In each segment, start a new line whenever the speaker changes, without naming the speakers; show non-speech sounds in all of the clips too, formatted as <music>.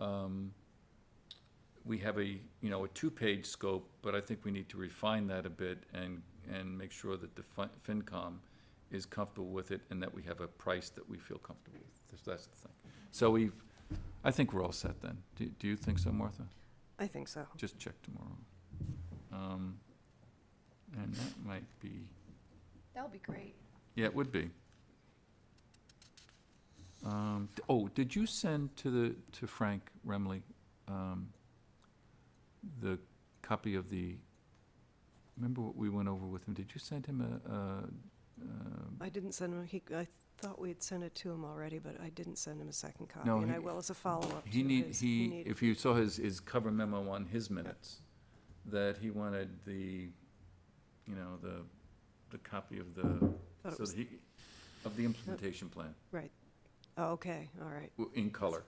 Um, we have a, you know, a two-page scope, but I think we need to refine that a bit and, and make sure that the fin- FinCom is comfortable with it and that we have a price that we feel comfortable with. So That's the thing. So we've, I think we're all set then. Do, do you think so, Martha?
I think so.
Just check tomorrow. Um, and that might be,
That'll be great.
yeah, it would be. Um, d- oh, did you send to the, to Frank Remley, um, the copy of the, remember what we went over with him? Did you send him a, a, um,
I didn't send him, he, I thought we had sent it to him already, but I didn't send him a second copy,
No,
and
he-
I will as a follow-up to his.
He need, he,
need-
if you saw his, his cover memo on his minutes, that he wanted the, you know, the, the copy of the,
thought it
so
was-
that he, of the implementation plan,
Oh, okay, all right.
w- in color.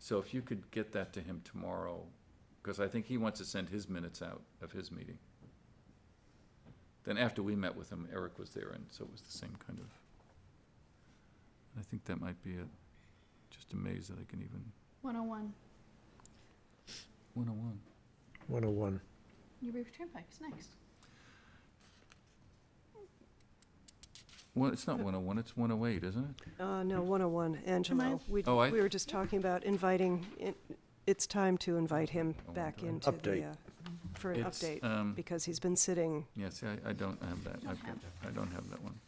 So if you could get that to him tomorrow, because I think he wants to send his minutes out of his meeting. Then after we met with him, Eric was there, and so it was the same kind of. I think that might be it. Just amazed that I can even,
101,
one oh one.
101.
Newbury Turnpike's next.
Well, it's not 101, it's 108, isn't it?
Uh, no, 101, Angelo. We,
Oh, I-
we were just talking about inviting, it- it's time to invite him
Oh,
back
okay.
into the,
Update.
uh, for an
It's,
update,
um,
because he's been sitting,
Yeah, see, I, I don't have that.
Don't
I've got-
have
I don't have that one.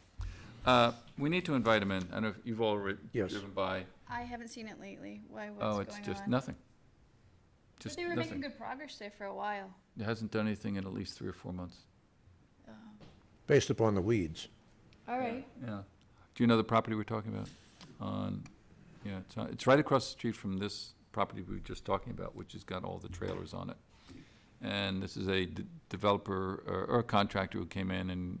Uh, We need to invite him in. I don't know if you've all re-
Yes.
driven by.
I haven't seen it lately. Why, what's
Oh,
going
it's just
on?
nothing.
But
Just
they were making
nothing.
good progress there for a while.
It hasn't done anything in at least three or four months.
Um,
Based upon the weeds.
All right.
Yeah. Do you know the property we're talking about? On, yeah, it's, on- it's right across the street from this property we were just talking about, which has got all the trailers on it. And this is a d- developer or- or a contractor who came in and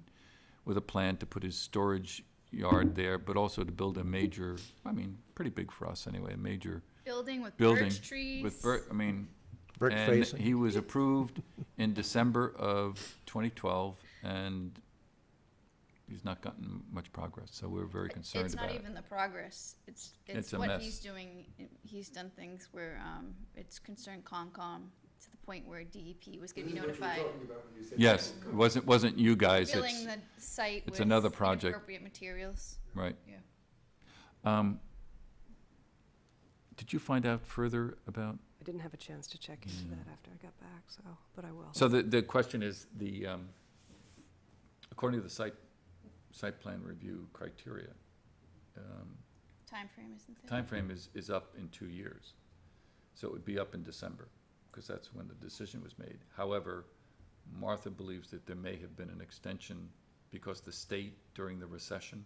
with a plan to put his storage yard there, but also to build a major, I mean, pretty big for us anyway, a major
Building with
Building
birch trees.
with, bir- I mean,
Brick
and
facing.
He was approved in December of 2012, and he's not gotten much progress, so we're very concerned
It's
about
not
it.
even the progress. It's,
It's
it's
a
what
mess.
he's doing. He's done things where, um, it's concerned Concom to the point where DEP was gonna be notified.
Yes, it wasn't, wasn't you guys, it's,
Filling the site
it's
with
another project.
appropriate materials.
right.
Yeah.
Um, Did you find out further about,
I didn't have a chance to check into that after I got back, so, but I will.
Mm. so the, the question is, the, um, according to the site, site plan review criteria, um,
Timeframe isn't there.
timeframe is, is up in two years. So it would be up in December, because that's when the decision was made. However, Martha believes that there may have been an extension because the state during the recession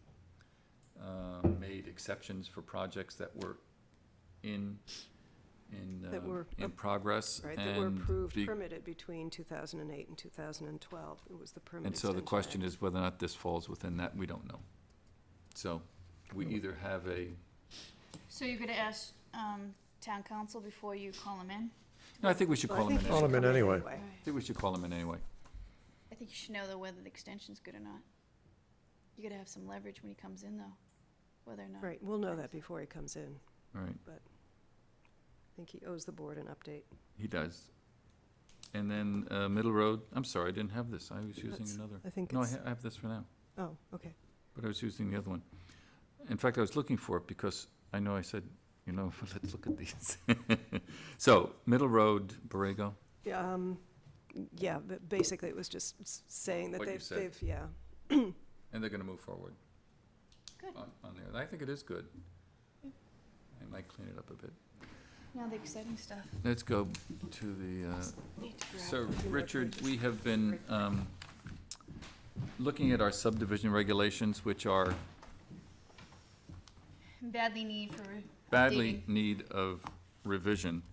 uh, made exceptions for projects that were in, in,
That
uh,
were
in
ap-
progress.
Right, that were
and
approved,
be-
permitted between 2008 and 2012. It was the permit
And so the
extension
question
act.
is whether or not this falls within that, we don't know. So we either have a,
So you're gonna ask, um, town council before you call him in?
no, I think we should
Well, I
call him in.
think you
anyway.
Call
should
him in anyway.
All right.
I think we should call him in anyway.
I think you should know though whether the extension's good or not. You gotta have some leverage when he comes in though, whether or not.
Right, we'll know that before he comes in.
All right.
I think he owes the board an update.
He does. And then uh, Middle Road, I'm sorry, I didn't have this, I was using
That's-
another.
I think
No, I
it's,
ha- I have this for now,
oh, okay.
but I was using the other one. In fact, I was looking for it because I know I said, you know, <laughs> let's look at these. <laughs> So, Middle Road, Borrego,
Yeah, um, yeah, but basically it was just s- saying that
What you
they've,
said.
they've, yeah.
and they're gonna move forward.
Good.
On, on there, I think it is good.
Yeah.
I might clean it up a bit.
Now the exciting stuff.
Let's go to the, uh,
Need to grab
So,
few more
Richard,
pages.
we have been um, looking at our subdivision regulations, which are
Badly need for. re-
badly
updating.
need of revision.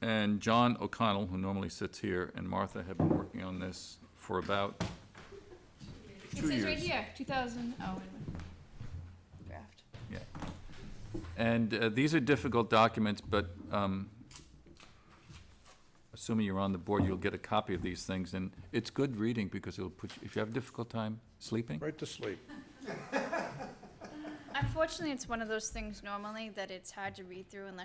And John O'Connell, who normally sits here, and Martha have been working on this for about,
It
two
says right
years.
here, two thousand, oh, wait a minute. Draft.
and uh, these are difficult documents, but um, assuming you're on the board, you'll get a copy of these things, and it's good reading because it'll put, you if you have a difficult time sleeping,
Right to sleep.
Unfortunately, it's one of those things normally that it's hard to read through unless